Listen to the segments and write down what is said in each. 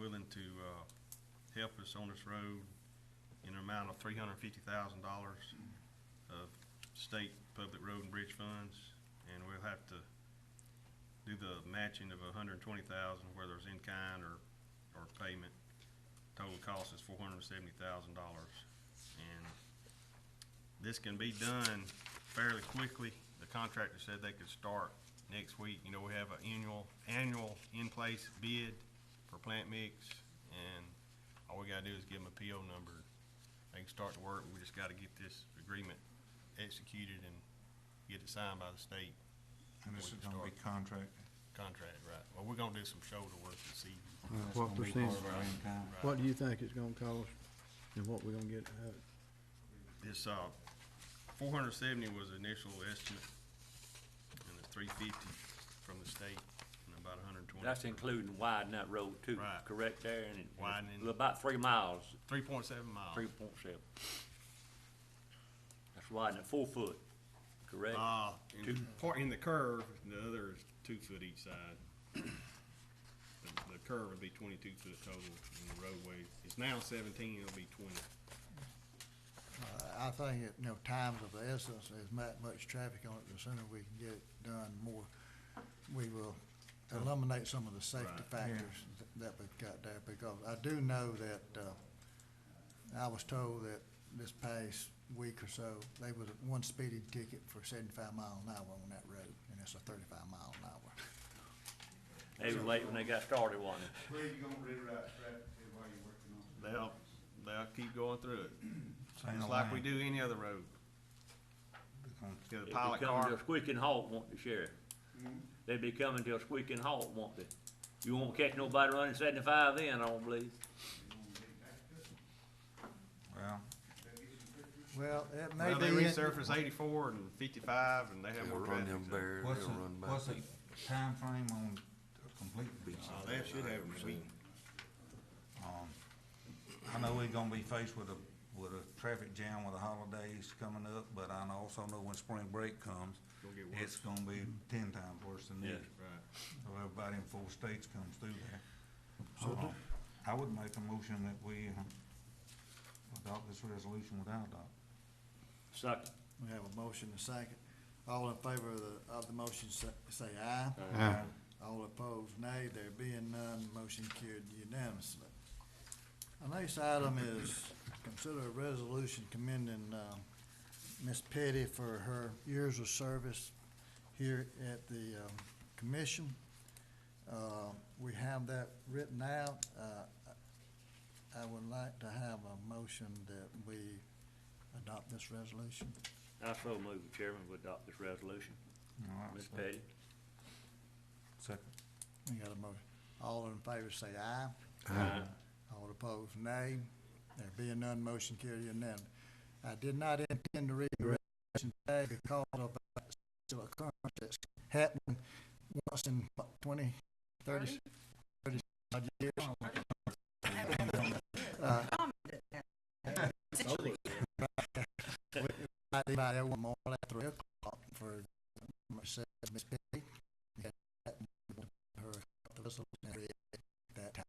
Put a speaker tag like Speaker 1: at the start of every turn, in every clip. Speaker 1: to, uh, help us on this road in an amount of three hundred and fifty thousand dollars of state public road and bridge funds. And we'll have to do the matching of a hundred and twenty thousand, whether it's in kind or, or payment. Total cost is four hundred and seventy thousand dollars. And this can be done fairly quickly. The contractor said they could start next week. You know, we have an annual, annual in-place bid for plant mix, and all we gotta do is give them a PO number. They can start the work, we just gotta get this agreement executed and get it signed by the state
Speaker 2: And this is gonna be contract.
Speaker 1: contract, right? Well, we're gonna do some shoulder work this evening.
Speaker 2: That's
Speaker 3: what
Speaker 2: gonna be
Speaker 3: percentage?
Speaker 2: part of our income.
Speaker 3: What do you think it's gonna cost and what we are gonna get out of it?
Speaker 1: This, uh, four hundred seventy was the initial estimate, and it's three fifty from the state, and about a hundred and twenty.
Speaker 4: That's including widening that road too,
Speaker 1: Right.
Speaker 4: correct there, and it-
Speaker 1: Widening. Uh-huh.
Speaker 4: about three miles,
Speaker 1: Three point seven miles.
Speaker 4: three point seven. That's widening it four foot, correct?
Speaker 1: Uh, in
Speaker 4: Two.
Speaker 1: part, in the curve, the other is two foot each side. The, the curve would be twenty-two foot total, and the roadway, it's now seventeen, it'll be twenty.
Speaker 5: Uh, I think, it, you know, time's of the essence, there's not much traffic on it, the sooner we can get it done, more, we will eliminate some of the safety
Speaker 1: Right.
Speaker 5: factors th- that we've got there, because I do know that, uh, I was told that this past week or so, they was one speeding ticket for seventy-five mile an hour on that road, and it's a thirty-five mile an hour.
Speaker 4: They were late when they got started, wasn't it?
Speaker 6: Where you gonna redirect traffic to while you're working on? it?
Speaker 1: They'll, they'll keep going through it,
Speaker 2: Same
Speaker 1: just like we
Speaker 2: lane.
Speaker 1: do any other road. Get a
Speaker 4: They'd be
Speaker 1: pilot
Speaker 4: coming to
Speaker 1: car,
Speaker 4: a squeaking halt, want the sheriff.
Speaker 1: Mm-hmm.
Speaker 4: They'd be coming to a squeaking halt, want the, you won't catch nobody running seventy-five then, I don't believe.
Speaker 6: You gonna get back to it?
Speaker 2: Well,
Speaker 6: They'll get you fifty
Speaker 5: Well, it may
Speaker 1: well, they
Speaker 5: be, in-
Speaker 1: resurface eighty-four and fifty-five, and they have
Speaker 7: They'll
Speaker 1: more
Speaker 7: run
Speaker 1: traffic.
Speaker 7: them
Speaker 1: so-
Speaker 7: bears,
Speaker 2: what's
Speaker 7: they'll
Speaker 2: the,
Speaker 7: run back.
Speaker 2: what's the timeframe on completing?
Speaker 7: Beats
Speaker 1: Uh,
Speaker 7: it.
Speaker 1: they should have a week.
Speaker 2: Um, I know we're gonna be faced with a, with a traffic jam with the holidays coming up, but I know- also know when spring break comes,
Speaker 1: Gonna get worse.
Speaker 2: it's gonna be ten times worse than this.
Speaker 1: Right.
Speaker 2: So everybody in four states comes through there.
Speaker 3: So do-
Speaker 2: Uh, I would make a motion that we uh, adopt this resolution without a doubt.
Speaker 4: Second.
Speaker 5: we have a motion and a second, all in favor of the, of the motion, say, say aye. All opposed, nay. There being none, motion carried unanimously. Our next item is consider a resolution commending, uh, Ms. Petty for her years of service here at the, um, commission. Uh, we have that written out. Uh, I would like to have a motion that we adopt this resolution.
Speaker 4: I so move, Chairman, we adopt this resolution.
Speaker 2: All right,
Speaker 4: Ms.
Speaker 2: so-
Speaker 4: Petty?
Speaker 2: Second.
Speaker 5: We got a motion. All in favor say aye.
Speaker 4: Aye.
Speaker 5: All opposed, nay. There being none, motion carried unanimously. I did not intend to read the resolution today because of a still occurrence that's happened once in what, twenty, thirty, thirty odd years. Uh, I did by everyone more at three o'clock for myself, and Miss Pitty. and that- Her, the resolution at that time.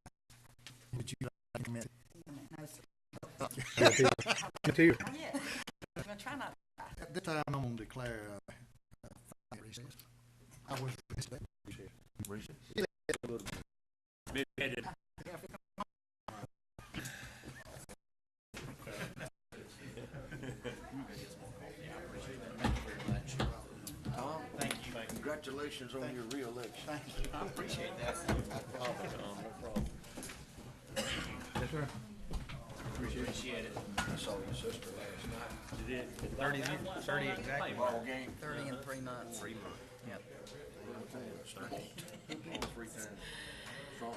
Speaker 5: Would you like to comment?
Speaker 3: Tear.
Speaker 8: I'm gonna try not.
Speaker 5: At this time, I'm gonna declare, uh, uh, five recess. I was,
Speaker 4: Ms. Petty,
Speaker 7: Tom, congratulations on your reelection. I saw your sister last night,
Speaker 1: Thirty, thirty exactly.
Speaker 7: ball game,
Speaker 8: Thirty in three months. Three months. Yep.
Speaker 7: three times strong.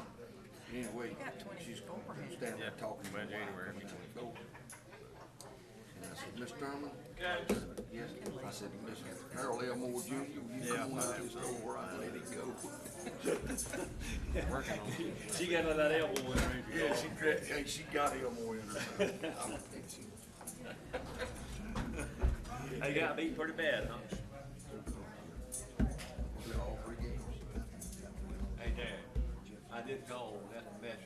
Speaker 7: Anyway,
Speaker 8: We got
Speaker 7: she's
Speaker 8: twenty-four here.
Speaker 7: standing there talking about January. And I said, Miss Thurman? Yes, I said, Miss Harold Elmore Jr., will you come on out this door, I let it go.
Speaker 4: she got another elbow in her.
Speaker 7: Yeah, she, dra- hey, she got Elmore in her.
Speaker 4: They got beat pretty bad, huh?
Speaker 7: All three games.
Speaker 4: Hey, Dad, I did call that message